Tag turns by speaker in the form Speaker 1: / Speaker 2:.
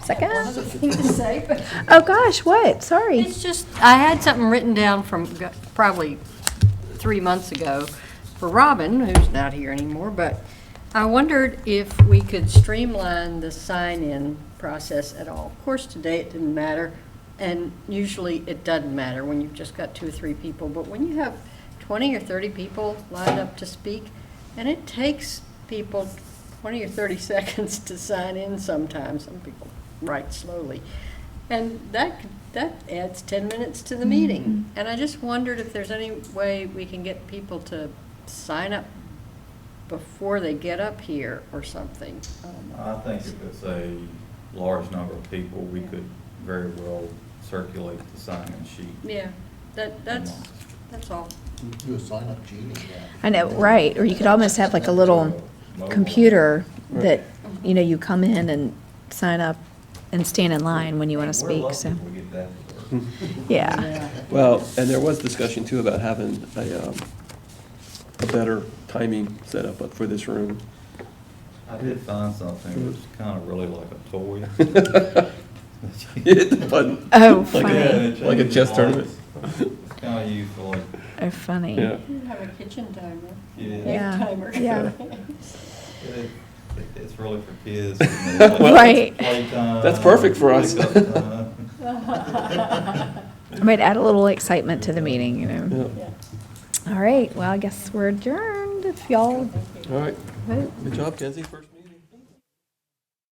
Speaker 1: Second?
Speaker 2: Another thing to say, but
Speaker 1: Oh, gosh, what? Sorry.
Speaker 2: It's just, I had something written down from g- probably three months ago for Robin, who's not here anymore, but I wondered if we could streamline the sign-in process at all. Of course, today it didn't matter, and usually it doesn't matter when you've just got two or three people, but when you have 20 or 30 people lined up to speak, and it takes people 20 or 30 seconds to sign in sometimes, some people write slowly. And that, that adds 10 minutes to the meeting. And I just wondered if there's any way we can get people to sign up before they get up here or something. Um,
Speaker 3: I think if it's a large number of people, we could very well circulate the sign-in sheet.
Speaker 2: Yeah, that, that's, that's all.
Speaker 4: Do a sign up genie. yeah.
Speaker 1: I know, right, or you could almost have like a little computer that, you know, you come in and sign up and stand in line when you want to speak, so,
Speaker 3: We're lucky if we get that to work.
Speaker 1: yeah.
Speaker 5: Well, and there was discussion too about having a, um, a better timing set up for this room.
Speaker 3: I did find something that was kind of really like a toy.
Speaker 5: Hit the button.
Speaker 1: Oh,
Speaker 5: Like a-
Speaker 1: funny.
Speaker 5: Like a chess tournament.
Speaker 3: It's kind of useful, like,
Speaker 1: Oh, funny.
Speaker 5: Yeah.
Speaker 2: You have a kitchen timer.
Speaker 3: yeah,
Speaker 1: Yeah,
Speaker 2: Timer.
Speaker 1: yeah.
Speaker 3: it- it's really for kids. and they like it.
Speaker 1: Right.
Speaker 3: Playtime,
Speaker 5: That's perfect for us.
Speaker 3: pickup time.
Speaker 1: I Might add a little excitement to the meeting, you know.
Speaker 5: Yeah.
Speaker 1: All right, well, I guess we're adjourned if y'all
Speaker 5: All right.
Speaker 1: vote.
Speaker 5: Good job, Kenzie. First.